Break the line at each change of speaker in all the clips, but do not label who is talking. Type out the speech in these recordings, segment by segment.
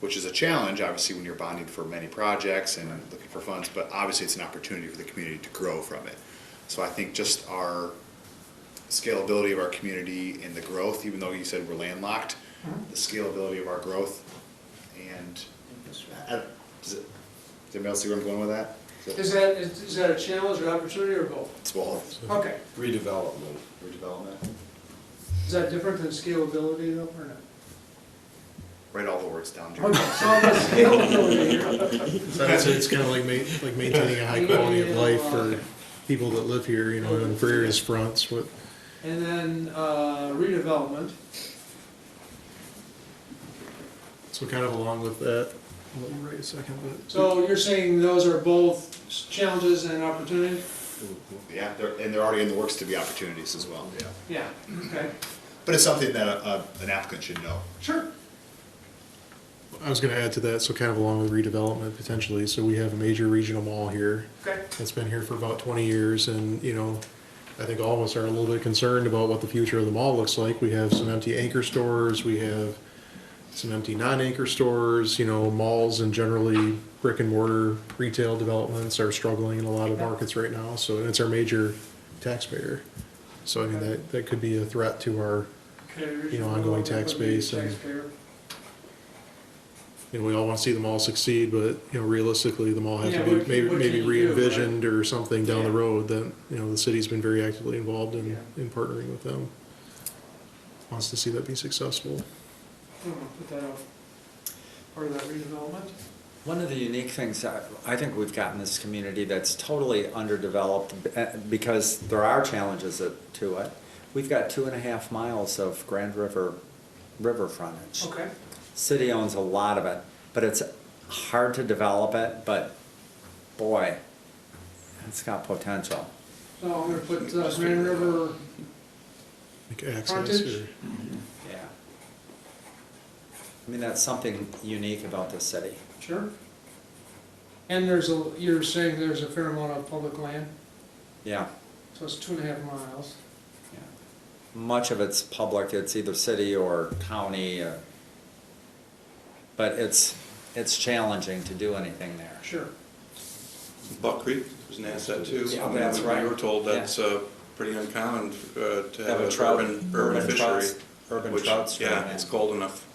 which is a challenge, obviously, when you're bonding for many projects and looking for funds, but obviously it's an opportunity for the community to grow from it. So I think just our scalability of our community and the growth, even though you said we're landlocked, the scalability of our growth and, I- I- does it- does anybody else see where I'm going with that?
Is that, is is that a challenge or opportunity or both?
It's both
Okay,
Redevelopment.
redevelopment,
is that different than scalability though, or not?
write all the words down. Jerry.
Okay, so that's scalability here.
So I'd say it's kind of like ma- like maintaining a high quality of life for people that live here, you know, and for areas fronts, what,
And then uh, redevelopment,
so kind of along with that. I'll let you write a second, but.
so you're saying those are both challenges and opportunities?
Yeah, they're, and they're already in the works to be opportunities as well. Yeah.
Yeah, okay,
But it's something that uh, an applicant should know.
sure.
I was gonna add to that, so kind of along with redevelopment potentially, so we have a major regional mall here.
Okay.
It's been here for about twenty years and, you know, I think all of us are a little bit concerned about what the future of the mall looks like. We have some empty anchor stores, we have some empty non-anchor stores, you know, malls and generally brick and mortar retail developments are struggling in a lot of markets right now, so, and it's our major taxpayer. So I mean, that, that could be a threat to our You know, ongoing tax base and-
Taxpayer.
you know, we all want to see them all succeed, but, you know, realistically, them all have
Yeah,
to be
what-
maybe,
what
maybe
can you do, right?
re-envisioned or something down the
Yeah.
road that, you know, the city's been very actively involved in,
Yeah.
in partnering with them. Wants to see that be successful.
I don't know, put that out, part of that redevelopment.
One of the unique things that I think we've got in this community that's totally underdeveloped b- eh, because there are challenges it- to it. We've got two and a half miles of Grand River river frontage.
Okay,
City owns a lot of it, but it's hard to develop it, but boy, it's got potential.
so I'm gonna put uh, Grand River,
Like access
Frontage?
or,
Yeah. I mean, that's something unique about the city.
sure. And there's a, you're saying there's a fair amount of public land,
Yeah.
so it's two and a half miles.
yeah. Much of it's public, it's either city or county, uh, but it's, it's challenging to do anything there.
Sure.
Buck Creek is an asset too.
Yeah,
I mean,
that's right.
We were told
Yeah.
that's uh, pretty uncommon uh, to
Have
have
a
an
trout-
urban,
urban
urban
trout-
fishery.
urban
which,
trout stream,
Yeah,
yeah.
it's cold enough,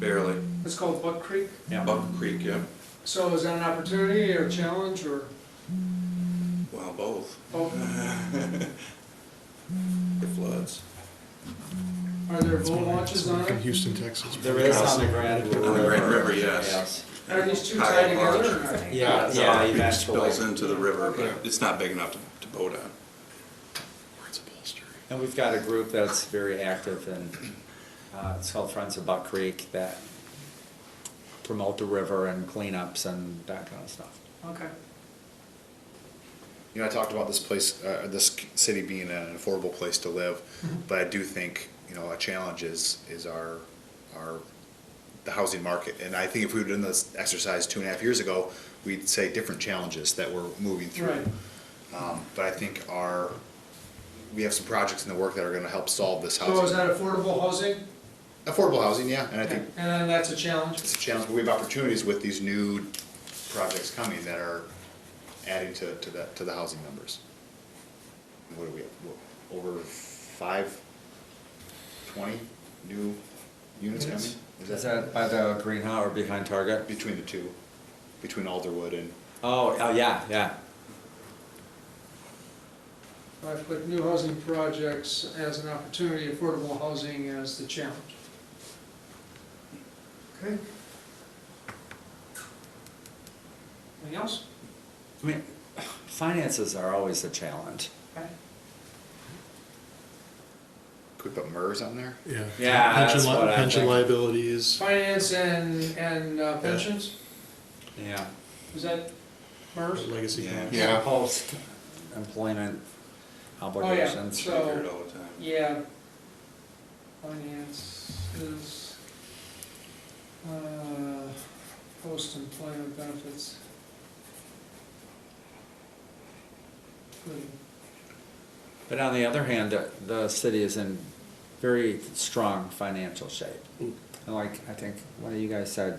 barely.
It's called Buck Creek.
Yeah,
Buck Creek, yeah,
So is that an opportunity or a challenge or
well, both,
both?
it floods.
Are there
it's
boat launches on
like in
it?
Houston, Texas.
there is on the Grand
On
River.
the Grand River, yes.
Are these two
Kyle
tied together
Barge.
or not?
Yeah,
It's
yeah,
not- It
eventually.
spills into the river,
Okay.
but it's not big enough to- to boat on.
It's a bolster.
And we've got a group that's very active and uh, it's called Friends of Buck Creek that promote the river and cleanups and that kind of stuff.
Okay.
You know, I talked about this place, uh, this c- city being an affordable place to live,
Mm-hmm.
but I do think, you know, a challenge is, is our, our, the housing market. And I think if we'd done this exercise two and a half years ago, we'd say different challenges that we're moving through.
Right.
Um, but I think our, we have some projects in the work that are gonna help solve this
So is
housing.
that affordable housing?
Affordable housing, yeah, and I think
And then that's a challenge?
it's a challenge, but we have opportunities with these new projects coming that are adding to, to the, to the housing numbers. What are we, at? What, over five, twenty new units coming?
Is that by the greenhouse or behind Target?
Between the two, between Alderwood and,
Oh, oh, yeah, yeah.
I put new housing projects as an opportunity, affordable housing as the challenge. Okay. Anything else?
I mean, finances are always a challenge.
Okay.
could we put MERS on there?
Yeah.
Yeah, that's
Pension li-
what I
Pension
think.
liabilities,
Finance and, and uh, pensions,
Yeah.
is that MERS?
legacy.
Yeah.
plans.
Yeah.
Post employment
We
obligations.
So-
hear it all the time.
Yeah. Finance is, uh, post-employment benefits. Good.
But on the other hand, the- the city is in very strong financial shape. And like, I think one of you guys said,